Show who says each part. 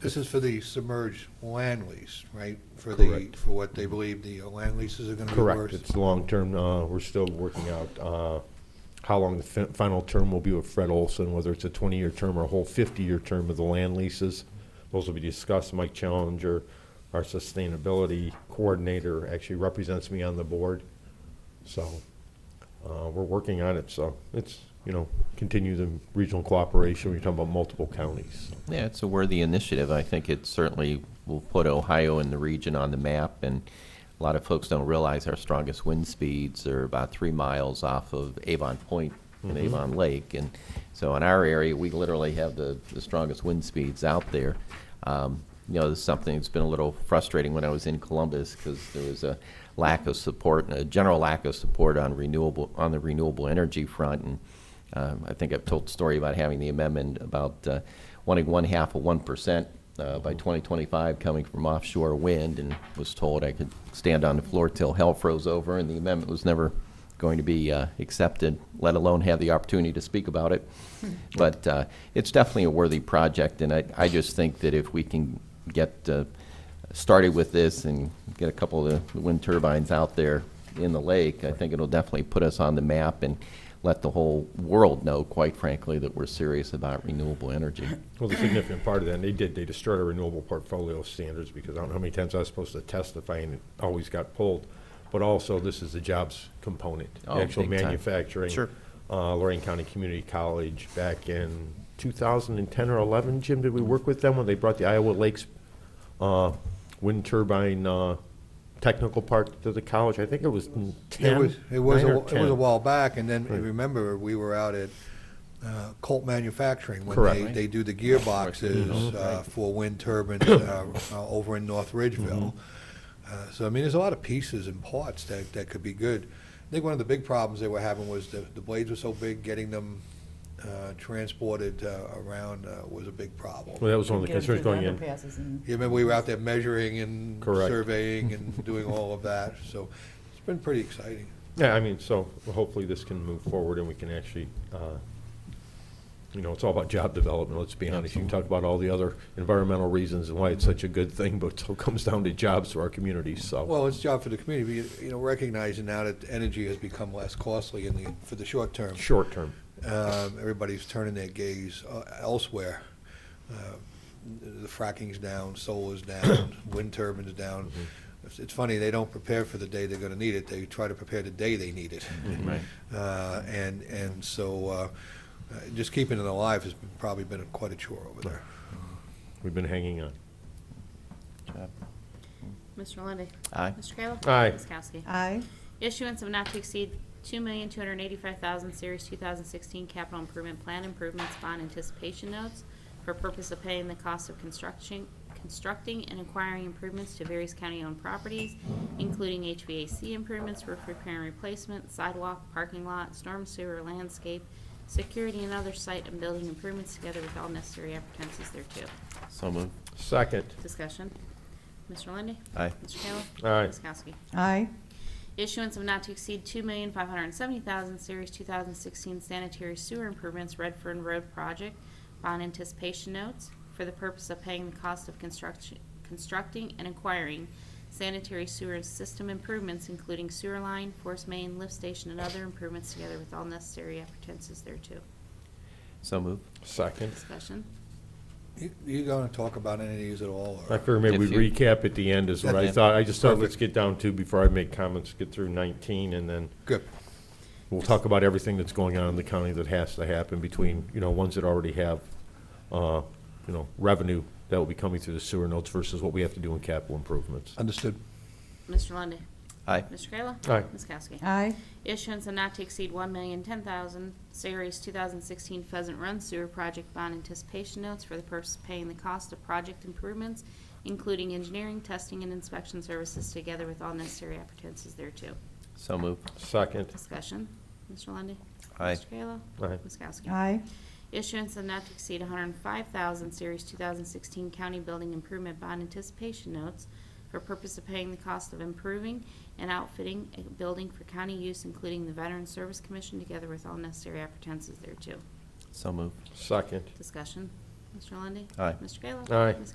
Speaker 1: This is for the submerged land lease, right? For the,
Speaker 2: Correct.
Speaker 1: for what they believe the uh, land leases are going to be worth?
Speaker 2: Correct, it's long-term, uh, we're still working out, uh, how long the fin- final term will be with Fred Olson, whether it's a twenty-year term or a whole fifty-year term of the land leases. Those will be discussed, Mike Challenger, our sustainability coordinator, actually represents me on the board. So, uh, we're working on it, so it's, you know, continue the regional cooperation, we're talking about multiple counties.
Speaker 3: Yeah, it's a worthy initiative. I think it certainly will put Ohio and the region on the map, and a lot of folks don't realize our strongest wind speeds are about three miles off of Avon Point and Avon Lake. And so in our area, we literally have the, the strongest wind speeds out there. Um, You know, this is something that's been a little frustrating when I was in Columbus, because there was a lack of support, a general lack of support on renewable, on the renewable energy front, and um, I think I've told the story about having the amendment about uh, wanting one half of one percent uh, by 2025 coming from offshore wind, and was told I could stand on the floor till hell froze over, and the amendment was never going to be uh, accepted, let alone have the opportunity to speak about it. But uh, it's definitely a worthy project, and I, I just think that if we can get uh, started with this and get a couple of the wind turbines out there in the lake, I think it'll definitely put us on the map and let the whole world know, quite frankly, that we're serious about renewable energy.
Speaker 2: Well, the significant part of that, and they did, they destroyed our renewable portfolio standards because I don't know how many times I was supposed to testify and it always got pulled. But also, this is the jobs component, the
Speaker 3: Oh,
Speaker 2: actual
Speaker 3: big time.
Speaker 2: manufacturing.
Speaker 3: Sure.
Speaker 2: Uh, Lorraine County Community College back in two thousand and ten or eleven, Jim, did we work with them when they brought the Iowa Lakes, uh, wind turbine, uh, technical part to the college? I think it was in ten.
Speaker 1: It was, it was,
Speaker 2: nine
Speaker 1: a-
Speaker 2: or
Speaker 1: it was a
Speaker 2: 10.
Speaker 1: while back, and then,
Speaker 2: Right.
Speaker 1: remember, we were out at uh, Colt Manufacturing when
Speaker 2: Correct.
Speaker 1: they, they do the gearboxes uh, for wind turbines uh, uh, over in North Ridgeville.
Speaker 2: Mm-hmm.
Speaker 1: Uh, So, I mean, there's a lot of pieces and parts that, that could be good. I think one of the big problems they were having was the, the blades were so big, getting them uh, transported uh, around uh, was a big problem.
Speaker 2: Well, that was one of the
Speaker 4: Get 'em
Speaker 2: concerns
Speaker 4: through
Speaker 2: going
Speaker 4: the
Speaker 2: in.
Speaker 4: underpasses and-
Speaker 1: You remember, we were out there measuring and
Speaker 2: Correct.
Speaker 1: surveying and doing all of that, so it's been pretty exciting.
Speaker 2: Yeah, I mean, so hopefully this can move forward and we can actually, uh, you know, it's all about job development, let's be honest. You can talk about all the other environmental reasons and why it's such a good thing, but it still comes down to jobs for our communities, so.
Speaker 1: Well, it's a job for the community, but, you know, recognizing now that energy has become less costly in the, for the short term.
Speaker 2: Short term,
Speaker 1: Um, Everybody's turning their gaze uh, elsewhere. Uh, The fracking's down, solar's down, wind turbines down. It's- It's funny, they don't prepare for the day they're gonna need it, they try to prepare the day they need it.
Speaker 3: Mm-hmm.
Speaker 1: Uh, And, and so, uh, uh, just keeping it alive has been- probably been quite a chore over there.
Speaker 2: we've been hanging on.
Speaker 5: Mr. Lundy,
Speaker 3: Aye.
Speaker 5: Mr. Kayla?
Speaker 2: Aye.
Speaker 5: Ms. Kowski?
Speaker 4: Aye,
Speaker 5: Issuance of not to exceed two million, two hundred and eighty-five thousand, series two thousand sixteen capital improvement plan improvements bond anticipation notes for purpose of paying the cost of construction, constructing and acquiring improvements to various county-owned properties, including HVAC improvements, roof repair and replacement, sidewalk, parking lot, storm sewer, landscape, security and other site and building improvements together with all necessary appetances thereto.
Speaker 3: So moved.
Speaker 2: Second,
Speaker 5: Discussion. Mr. Lundy,
Speaker 3: Aye.
Speaker 5: Mr. Kayla?
Speaker 2: Aye.
Speaker 5: Ms. Kowski?
Speaker 4: aye,
Speaker 5: Issuance of not to exceed two million five hundred and seventy thousand Series two thousand sixteen sanitary sewer improvements Redfern Road project bond anticipation notes for the purpose of paying the cost of construction, constructing and acquiring sanitary sewer system improvements, including sewer line, force main, lift station, and other improvements together with all necessary appetances thereto.
Speaker 3: So moved.
Speaker 2: second.
Speaker 5: Discussion.
Speaker 1: You- You gonna talk about any of these at all? or-
Speaker 2: I figure maybe we
Speaker 3: If you-
Speaker 2: recap at the end is what I
Speaker 3: Yeah.
Speaker 2: thought. I just thought, let's
Speaker 1: Perfect.
Speaker 2: get down to, before I make comments, get through nineteen and then
Speaker 1: Good.
Speaker 2: We'll talk about everything that's going on in the county that has to happen between, you know, ones that already have, uh, you know, revenue that will be coming through the sewer notes versus what we have to do in capital improvements.
Speaker 1: Understood.
Speaker 5: Mr. Lundy,
Speaker 3: Aye.
Speaker 5: Mr. Kayla?
Speaker 2: Aye.
Speaker 5: Ms. Kowski?
Speaker 4: aye,
Speaker 5: Issuance of not to exceed one million ten thousand Series two thousand sixteen Pheasant Run Sewer Project Bond Anticipation Notes for the purpose of paying the cost of project improvements, including engineering, testing, and inspection services, together with all necessary appetances thereto.
Speaker 3: So moved.
Speaker 2: Second,
Speaker 5: Discussion, Mr. Lundy.
Speaker 3: Aye.
Speaker 5: Mr. Kayla?
Speaker 2: Aye.
Speaker 5: Ms. Kowski?
Speaker 4: aye,
Speaker 5: Issuance of not to exceed 105,000 Series 2016 County Building Improvement Bond Anticipation Notes for purpose of paying the cost of improving and outfitting a building for county use, including the Veterans Service Commission, together with all necessary appetances thereto.
Speaker 3: So moved.
Speaker 2: second.
Speaker 5: Discussion. Mr. Lundy.
Speaker 3: Aye.
Speaker 5: Mr. Kayla?
Speaker 2: Aye.
Speaker 5: Ms.